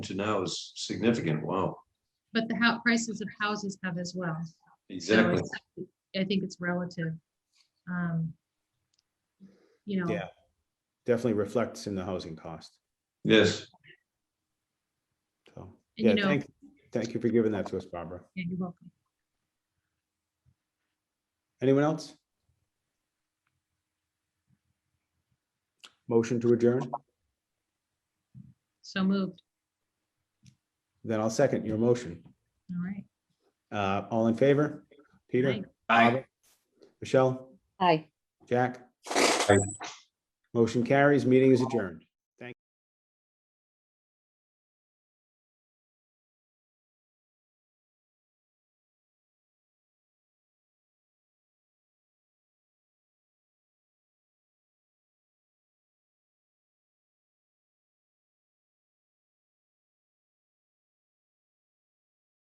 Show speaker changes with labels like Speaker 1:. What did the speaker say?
Speaker 1: to now is significant. Wow.
Speaker 2: But the how, prices of houses have as well. So
Speaker 1: Exactly.
Speaker 2: it's- I think it's relative. Um You know,
Speaker 3: Yeah. definitely reflects in the housing cost.
Speaker 1: Yes.
Speaker 3: So,
Speaker 2: And you
Speaker 3: yeah,
Speaker 2: know-
Speaker 3: thank, thank you for giving that to us, Barbara.
Speaker 2: yeah, you're welcome.
Speaker 3: Anyone else? Motion to adjourn,
Speaker 2: So moved.
Speaker 3: then I'll second your motion.
Speaker 2: All right.
Speaker 3: Uh, all in favor? Peter?
Speaker 2: Aye.
Speaker 3: Barbara? Michelle?
Speaker 4: Hi.
Speaker 3: Jack? Motion carries, meeting is adjourned.